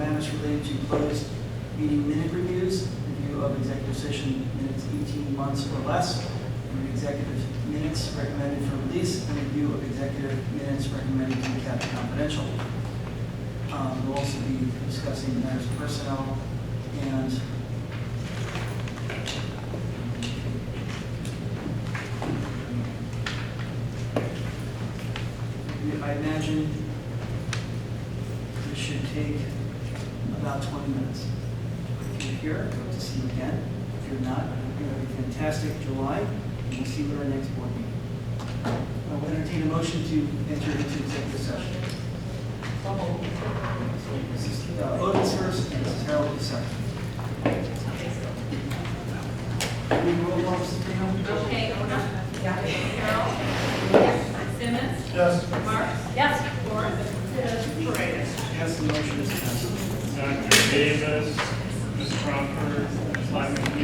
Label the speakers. Speaker 1: related to closed meeting minute reviews, review of executive session minutes 18 months or less, and executive minutes recommended for release, and review of executive minutes recommended to be kept confidential. Um, We'll also be discussing matters of personnel and I imagine this should take about 20 minutes. If you're here, I'd love to see you again. If you're not, I hope you have a fantastic July, and we'll see you at our next board meeting. I will entertain a motion to enter into executive session. Mrs. Otis uh, first, and Mrs. Harold is second. Can we roll call, Mrs. Bingham?
Speaker 2: Okay, Ona? Carol? Simmons?
Speaker 3: Yes.
Speaker 2: Marks? Yes. Lawrence? Paredes?
Speaker 1: Yes, the motion is passed.
Speaker 3: Dr. Davis, Ms. Crawford, Ms. Lyman,